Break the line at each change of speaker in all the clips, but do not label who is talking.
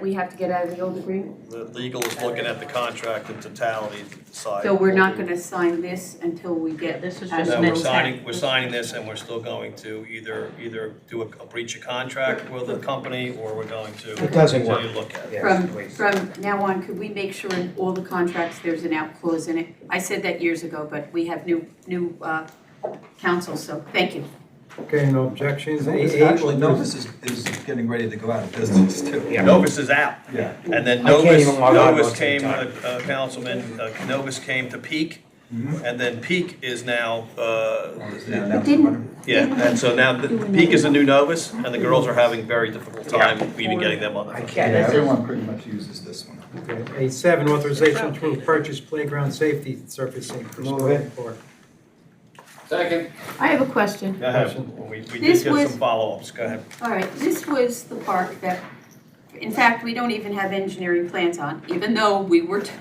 We have to get out of the old agreement?
The legal is looking at the contract in totality to decide.
So we're not
what we-
gonna sign this until we get.
This is
out of
just
the
No, we're
next
old-
step.
signing, we're signing this and we're still going to either, either do a a breach of contract with the company or we're going to.
It doesn't work.
continue to look at it.
From, from now on, could we make sure in all the contracts, there's an out clause in it? I said that years ago, but we have new, new, uh, counsel, so thank you.
Okay, no objections.
Novus-
Eight- eight
Actually,
was-
Novus is, is getting ready to go out of business too.
Yeah.
Novus is out.
Yeah.
And then
I can't
Novus,
even log on
Novus
most of the
came,
time.
uh, Councilman, uh, Novus came to Peak.
Mhm.
And then Peak is now, uh,
Yeah, now-
didn't-
yeah, and so now the- Peak is a new Novus and the girls are having very difficult time even getting them on the.
I
phone.
Yeah,
can't, this is,
everyone pretty much uses this one.
Okay. Eight seven, authorization to approve purchase playground safety surfacing for
Move
Squirrel
it.
Park.
Second.
I have a question.
Go ahead. We, we did
This
get
was-
some follow-ups, go ahead.
All right, this was the park that, in fact, we don't even have engineering plans on, even though we were t-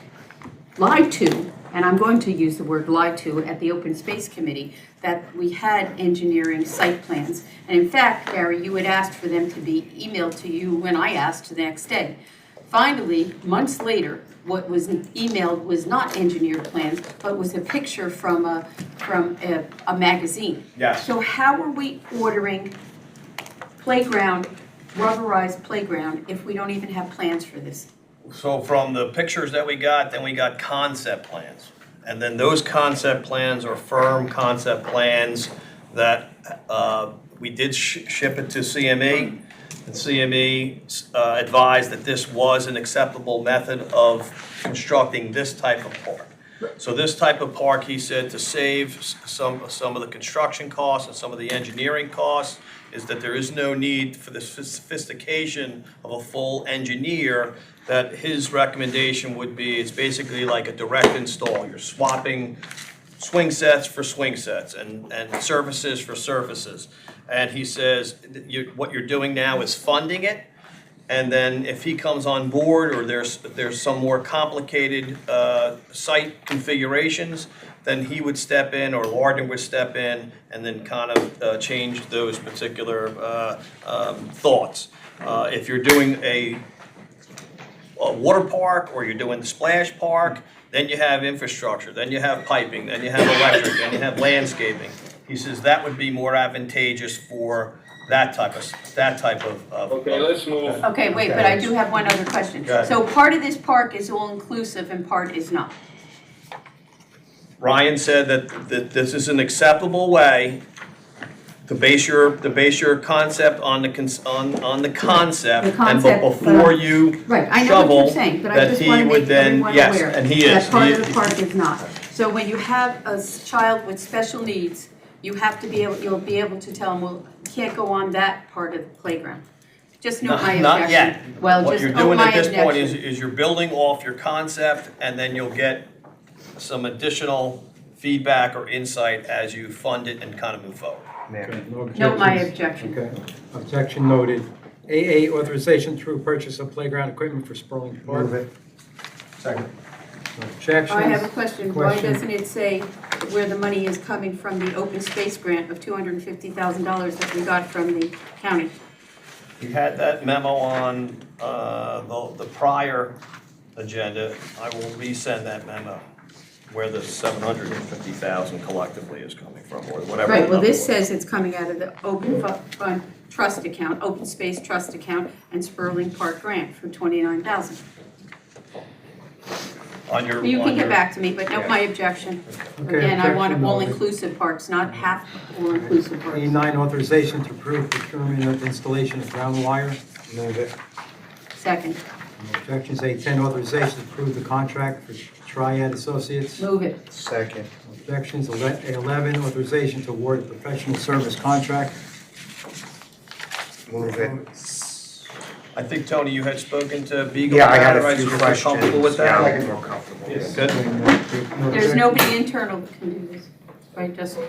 lied to, and I'm going to use the word lied to at the Open Space Committee, that we had engineering site plans. And in fact, Gary, you had asked for them to be emailed to you when I asked the next day. Finally, months later, what was emailed was not engineer plans, but was a picture from a, from a, a magazine.
Yes.
So how are we ordering playground, rubberized playground, if we don't even have plans for this?
So from the pictures that we got, then we got concept plans. And then those concept plans are firm concept plans that uh, we did sh- ship it to CME. And CME uh, advised that this was an acceptable method of constructing this type of park. So this type of park, he said, to save s- some, some of the construction costs and some of the engineering costs, is that there is no need for the soph- sophistication of a full engineer, that his recommendation would be, it's basically like a direct install. You're swapping swing sets for swing sets and, and surfaces for surfaces. And he says, that you, what you're doing now is funding it. And then if he comes on board or there's, there's some more complicated, uh, site configurations, then he would step in or Larden would step in and then kind of, uh, change those particular, uh, um, thoughts. Uh, if you're doing a a water park or you're doing the splash park, then you have infrastructure, then you have piping, then you have electric, then you have landscaping. He says that would be more advantageous for that type of, that type of. of-
Okay, let's move.
Okay, wait, but I do have one other question.
Go ahead.
So part of this park is all-inclusive and part is not.
Ryan said that, that this is an acceptable way to base your, to base your concept on the, cons- on, on the concept.
The
And
concept,
be- before you
Right, I know what
Shovel
you're saying, but I
that
just
he
want to
would
make
then-
everyone aware.
yes, and he is.
That part
He-
of the park is not. So when you have a s- child with special needs, you have to be able, you'll be able to tell them, well, you can't go on that part of the playground. Just note
Not-
my objection.
not yet.
Well,
What
just
you're
note
doing
my
at this point
objection.
is, is you're building off your concept, and then you'll get some additional feedback or insight as you fund it and kind of move forward.
Okay, no
Note my objection.
objections. Okay, objection noted. AA, authorization through purchase of playground equipment for Spurling Park.
move it. Second.
No Objections.
Oh, I have a question, why
Question.
doesn't it say where the money is coming from the open space grant of two hundred and fifty thousand dollars that we got from the county?
You had that memo on, uh, the, the prior agenda. I will resend that memo where the seven hundred and fifty thousand collectively is coming from, or whatever.
Right,
the
well,
number
this
was.
says it's coming out of the open fu- fund trust account, open space trust account, and Spurling Park grant for twenty-nine thousand.
On your,
You
on
can get
your-
back to me, but note my objection.
Okay,
Again, I want
objection noted.
all-inclusive parks, not half all-inclusive parks.
A9, authorization to approve procurement of installation of ground wire.
Move it.
Second,
No Objections. A10, authorization to approve the contract for Triad Associates.
move it,
Second.
No Objections. Ele- A11, authorization to award a professional service contract.
Move it.
I think, Tony, you had spoken to Beagle.
Yeah, I
about
had
it, right?
a few
So you're
questions.
Comfortable with that?
Yeah, I'm more comfortable.
Yes.
yeah.
No
there's
objection.
nobody internal that can do this, right, Justin?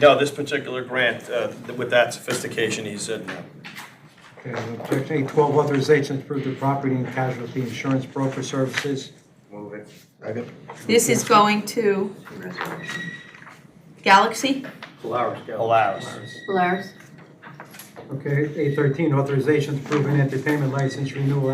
No, this particular grant, uh, with that sophistication, uh, he said no.
Okay, no Objection. A12, authorization to approve the property and casualty insurance broker services.
Move it. Second.
This is going to Galaxy,
Flowers,
Allows.
Polaris.
Okay, A13, authorization to approve an entertainment license renewal